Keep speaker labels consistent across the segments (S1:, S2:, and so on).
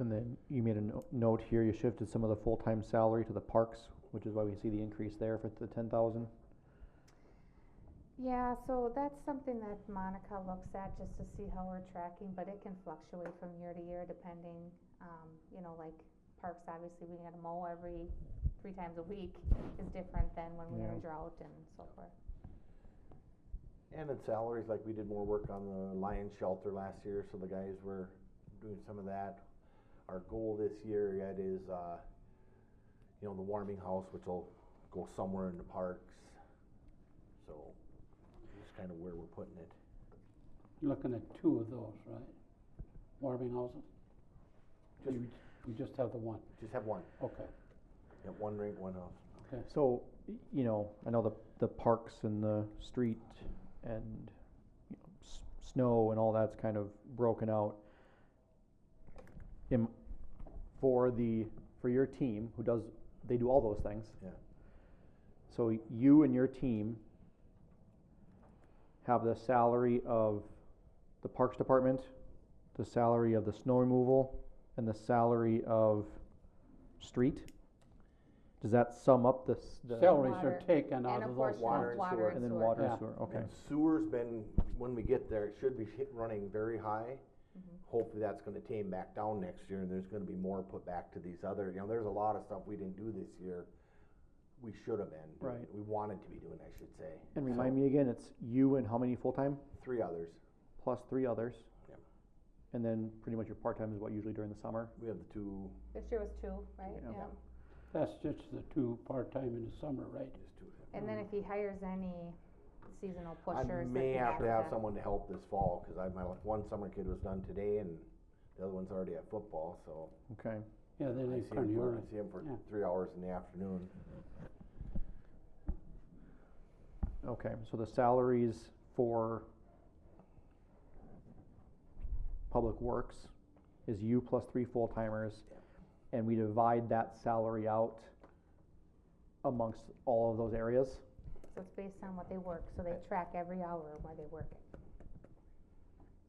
S1: And then you made a no- note here, you shifted some of the full-time salary to the parks, which is why we see the increase there for the ten thousand.
S2: Yeah, so that's something that Monica looks at just to see how we're tracking, but it can fluctuate from year to year depending, um, you know, like parks, obviously, we gotta mow every, three times a week is different than when we're in
S1: Yeah.
S2: a drought and so forth.
S3: And in salaries, like we did more work on the lion shelter last year, so the guys were doing some of that. Our goal this year yet is, uh, you know, the warming house, which will go somewhere in the parks. So, just kinda where we're putting it.
S4: You're looking at two of those, right? Warming houses? Or
S3: Just-
S4: You, you just have the one,
S3: Just have one,
S4: okay,
S3: yeah, one rink, one house.
S4: okay.
S1: So, y- you know, I know the, the parks and the street and, you know, s- snow and all that's kind of broken out. Am, for the, for your team, who does, they do all those things.
S3: Yeah.
S1: So you and your team have the salary of the Parks Department, the salary of the snow removal, and the salary of street? Does that sum up the, s- the?
S4: Salaries
S2: Water.
S4: are taken out
S2: And
S4: of
S2: of
S4: those
S2: course,
S3: water and
S4: funds.
S2: water
S3: sewer.
S2: and
S1: And then
S2: sewer.
S1: water and
S4: Yeah.
S1: sewer, okay.
S3: And sewer's been, when we get there, it should be hit, running very high.
S1: Mm-hmm.
S3: Hopefully that's gonna tame back down next year and there's gonna be more put back to these other, you know, there's a lot of stuff we didn't do this year. We should have been. doing.
S1: Right.
S3: We wanted to be doing, I should say.
S1: And remind me again, it's you and how many full-time,
S3: Three others.
S1: plus three others?
S3: Yep.
S1: And then pretty much your part-time is what, usually during the summer?
S3: We have the two,
S2: This year was two, right?
S1: Yeah.
S2: Yeah.
S4: That's just the two part-time in the summer, right?
S3: just two.
S2: And then if he hires any seasonal
S3: Mm-hmm. I
S2: pushers,
S3: may
S2: then he
S3: have to
S2: has
S3: have someone to help this fall, cause I, my, one summer kid was done today and the other one's already at football, so.
S1: Okay,
S4: Yeah, they
S3: I
S4: leave
S3: see
S4: kind
S3: him
S4: of
S3: for,
S4: early.
S3: I see him for
S4: yeah.
S3: three hours in the afternoon.
S1: okay, so the salaries for Public Works is you plus three full-timers, and we divide that salary out amongst all of those areas?
S2: So it's based on what they work, so they track every hour where they work it.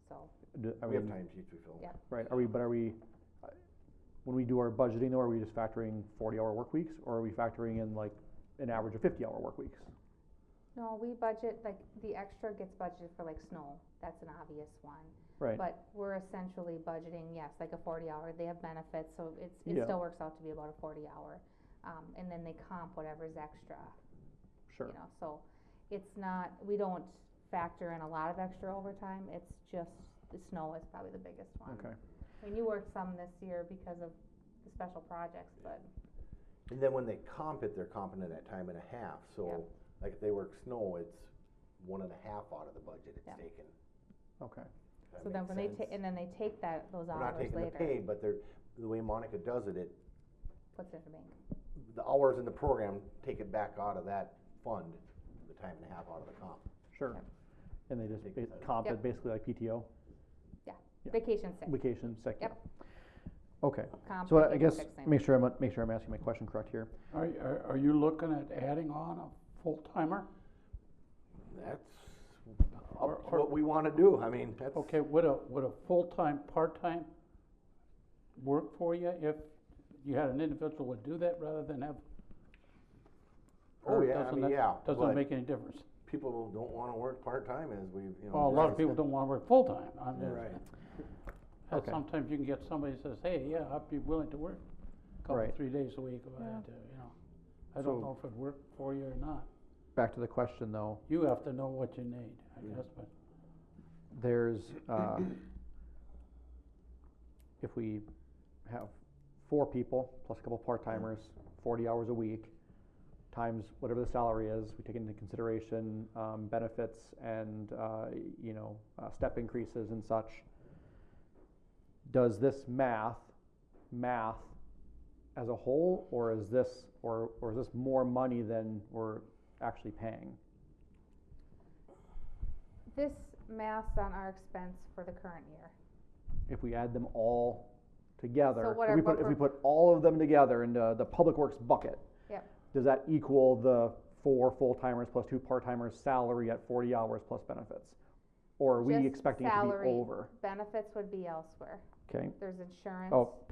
S2: So,
S1: Do- I
S3: We have
S1: mean,
S3: time sheets we fill.
S2: Yeah.
S1: Right, are we, but are we, uh, when we do our budgeting though, are we just factoring forty-hour work weeks, or are we factoring in like an average of fifty-hour work weeks?
S2: no, we budget, like, the extra gets budgeted for like snow, that's an obvious one.
S1: Right,
S2: But we're essentially budgeting, yes, like a forty hour, they have benefits, so it's,
S1: Yeah.
S2: it still works out to be about a forty hour. Um, and then they comp whatever's extra, you
S1: sure,
S2: know, so it's not, we don't factor in a lot of extra overtime, it's just, the snow is probably the biggest one.
S1: okay.
S2: I mean, you worked some this year because of the special projects, but
S3: And then when they comp it, they're comping it at time and a half, so, like if they work snow, it's one and a half out of the budget it's
S2: Yep.
S3: taken.
S1: Okay,
S3: if that
S2: So then
S3: makes
S2: when they
S3: sense.
S2: ta- and then they take that, those
S3: We're not
S2: hours
S3: taking the
S2: later,
S3: pay, but they're, the way Monica does it, it,
S2: puts it in the bank.
S3: the hours in the program take it back out of that fund, the time and a half out of the comp.
S1: sure.
S2: Yep.
S1: And they just
S3: Take
S1: ba-
S3: that.
S1: comp it
S2: Yep.
S1: basically like PTO, Yeah.
S2: Vacation sick,
S1: vacation, sick.
S2: Yep.
S1: Okay,
S2: comp,
S1: so I- I
S2: vacation
S1: guess,
S2: sick, same.
S1: make sure I'm, make sure I'm asking my question correct here.
S4: Are, are, are you looking at adding on a full-timer?
S3: That's
S4: Or-
S3: up to
S4: or-
S3: what we wanna do, I mean, that's.
S4: Okay, would a, would a full-time, part-time work for you if you had an individual would do that rather than have?
S3: Oh,
S4: or
S3: yeah, I
S4: doesn't
S3: mean,
S4: that-
S3: yeah, but-
S4: Doesn't make any difference.
S3: People don't wanna work part-time as we've, you know.
S4: Well, a lot
S3: discussed.
S4: of people don't wanna work full-time. I mean,
S3: Right,
S4: uh,
S1: Okay.
S4: Sometimes you can get somebody that says, hey, yeah, I'd be willing to work a couple,
S1: Right.
S4: three days a week if I had to, you know. I
S1: So-
S4: don't know if it'd work for you or not.
S1: Back to the question though,
S4: You have to know what you need, I guess, but
S1: there's, uh, if we have four people plus a couple part-timers, forty hours a week, times whatever the salary is, we take into consideration, um, benefits and, uh, you know, uh, step increases and such. Does this math, math as a whole, or is this, or, or is this more money than we're actually paying?
S2: This math's on our expense for the current year,
S1: if we add them all together,
S2: what
S1: if
S2: our
S1: we put, if we
S2: buffer-
S1: put all of them together into the public works bucket.
S2: Yep.
S1: Does that equal the four full-timers plus two part-timers salary at forty hours plus benefits? Or are we
S2: Just
S1: expecting it to be
S2: salary.
S1: over?
S2: benefits would be elsewhere,
S1: Okay.
S2: there's insurance.
S1: Oh,